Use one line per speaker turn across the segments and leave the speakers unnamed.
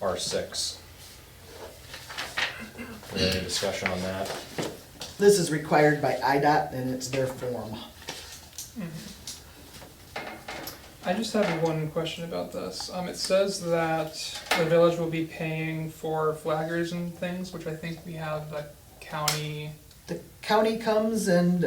R six. We have any discussion on that?
This is required by IDOT and it's their form.
I just have one question about this. Um, it says that the village will be paying for flaggers and things, which I think we have the county.
The county comes and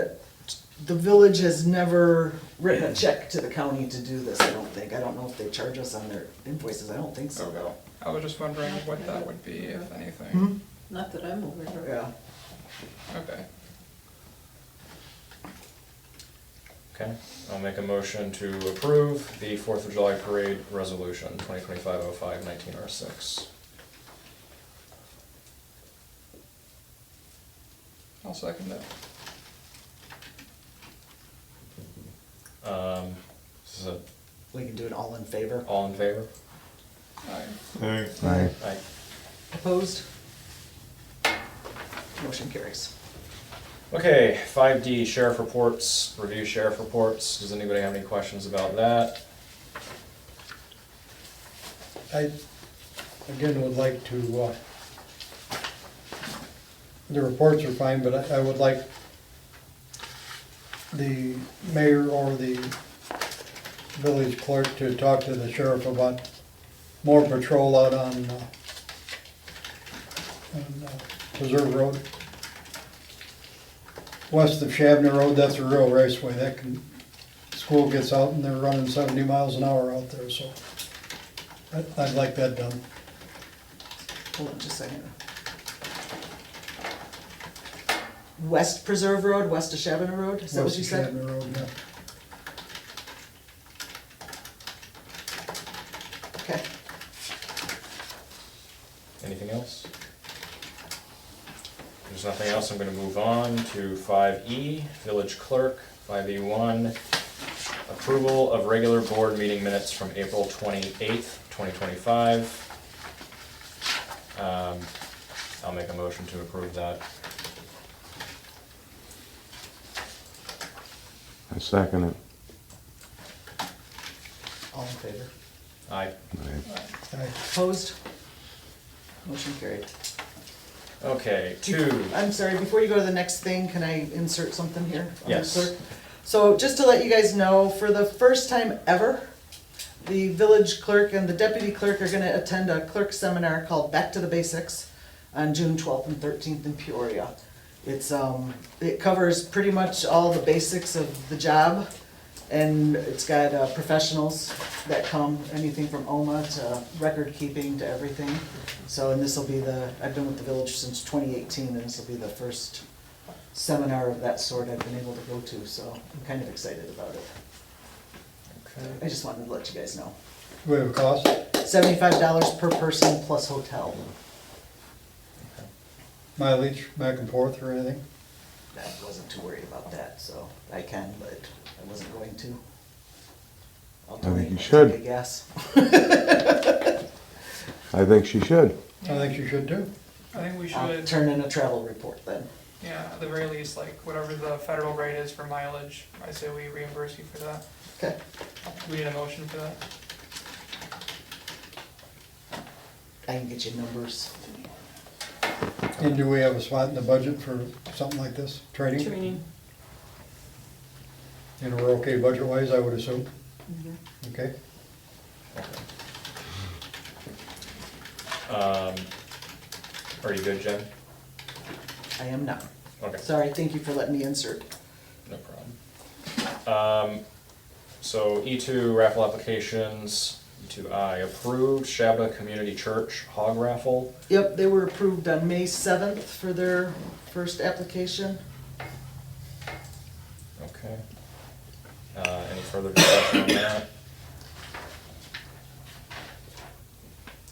the village has never written a check to the county to do this, I don't think. I don't know if they charge us on their invoices, I don't think so though.
I was just wondering what that would be, if
Mm-hmm.
anything.
Hmm?
Not that I'm aware of.
Yeah.
Okay.
Okay, I'll make a motion to approve the Fourth of July Parade Resolution, 2025 05 19 R six.
I'll second it.
Um, this is a,
We can do it all in favor.
all in favor?
Aye.
Aye.
Aye.
Opposed? Motion carries.
Okay, five D, sheriff reports, review sheriff reports. Does anybody have any questions about that?
I, again, would like to, uh, the reports are fine, but I, I would like the mayor or the village clerk to talk to the sheriff about more patrol out on, uh, on uh, Preserve Road. West of Shabner Road, that's a real raceway, that can, school gets out and they're running seventy miles an hour out there, so I- I'd like that done.
Hold on just a second. West Preserve Road, west of Shabana Road, is that what
West
you
of
said?
Shatner Road, yeah.
Okay.
Anything else? If There's nothing else, I'm gonna move on to five E, village clerk, five E one. Approval of regular board meeting minutes from April twenty-eighth, twenty twenty-five. Um, I'll make a motion to approve that.
I second it.
All in favor.
Aye.
Aye.
I-
Opposed? Motion carried.
Okay, two,
I'm sorry, before you go to the next thing, can I insert something here? on the
Yes.
clerk? So just to let you guys know, for the first time ever, the village clerk and the deputy clerk are gonna attend a clerk seminar called Back to the Basics on June twelfth and thirteenth in Peoria. It's, um, it covers pretty much all the basics of the job, and it's got uh, professionals that come, anything from OMA to record keeping to everything. So, and this'll be the, I've been with the village since twenty eighteen, and this'll be the first seminar of that sort I've been able to go to, so I'm kind of excited about it. I just wanted to let you guys know.
Do we have a cost?
Seventy-five dollars per person plus hotel.
Mileage back and forth or anything?
I wasn't too worried about that, so I can, but I wasn't going to. I'll
I think
donate
you
my
should.
ticket, I guess.
I think she should.
I think you should too.
I think we
I'll
should,
turn in a travel report then.
yeah, at the very least, like, whatever the federal rate is for mileage, I say we reimburse you for that.
Okay,
Do we need a motion for that?
I can get you numbers.
And do we have a spot in the budget for something like this, training?
Training.
And we're okay budget-wise, I would assume?
Mm-hmm.
Okay,
um, are you good, Jen?
I am not.
Okay.
Sorry, thank you for letting me insert.
No problem. Um, so E two raffle applications, E two I approved, Shabba Community Church hog raffle.
Yep, they were approved on May seventh for their first application.
Okay. Uh, any further discussion on that?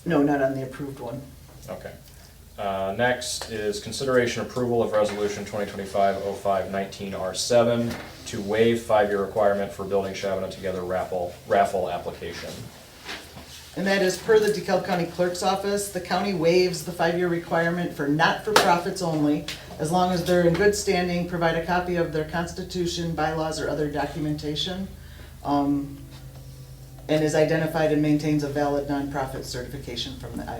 No, not on the approved one.
Okay. Uh, next is consideration approval of resolution twenty twenty-five oh five nineteen R seven to waive five-year requirement for building Shabana Together raffle, raffle application.
And that is per the DeKalb County Clerk's Office, the county waives the five-year requirement for not-for-profits only, as long as they're in good standing, provide a copy of their constitution, bylaws, or other documentation, um, and is identified and maintains a valid nonprofit certification from the